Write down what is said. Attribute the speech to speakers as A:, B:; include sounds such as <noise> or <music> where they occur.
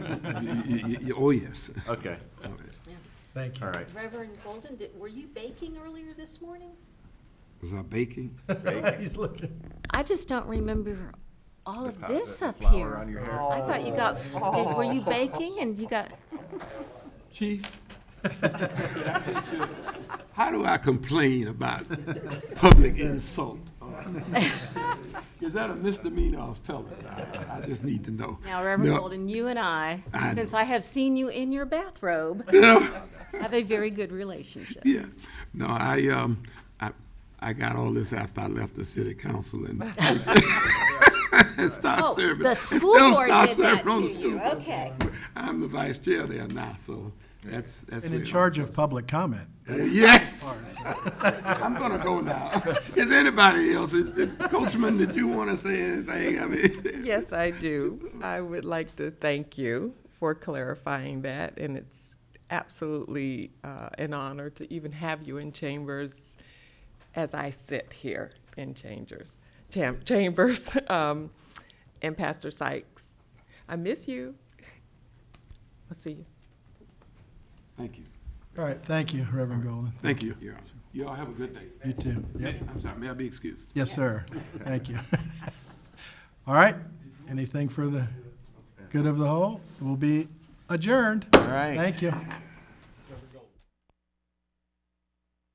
A: y- y- Oh, yes.
B: Okay,
A: All right.
C: Thank you.
B: all
C: <laughs>
B: right.
D: Reverend Golden, did, were you baking earlier this morning?
A: Was I baking?
B: Right.
C: He's looking.
D: I just don't remember all
B: The
D: of
B: pa-
D: this
B: the
D: up
B: flower
D: here.
B: on your hair.
D: I thought you got, did, were you baking and you <laughs> got,
A: Chief? How do I complain about public insult? Uh, Is that a misdemeanor or a felony? I- I just need to know.
D: now Reverend
A: No.
D: Golden, you and I,
A: I
D: since
A: know.
D: I have seen you in your <laughs> bathrobe, have a very good relationship.
A: Yeah, no, I, um, I, I got all this after I left the city council and <laughs> and
D: Oh,
A: started
D: <laughs>
A: serving.
D: the
A: and
D: school
A: still
D: board
A: start
D: did that
A: serving on
D: to
A: the school
D: you,
A: board.
D: okay.
A: I'm the vice chair there now, so that's, that's.
C: And in
A: where-
C: charge of public comment.
A: Yes. I'm gonna go now. Is anybody else, is, Coachman, did you wanna say anything? I mean.
E: Yes, I do. I would like to thank you for clarifying that, and it's absolutely uh, an honor to even have you in chambers as I sit here in chambers, cham- chambers, <laughs> um, and Pastor Sykes. I miss you. I'll see you.
A: Thank you.
C: All right, thank you, Reverend Golden.
A: Thank you. Your Honor. You all have a good day.
C: You too. Yep.
A: I'm sorry, may I be excused?
C: Yes, sir. Thank you. <laughs> All right, anything for the good of the whole? We'll be adjourned.
B: All right.
C: Thank you.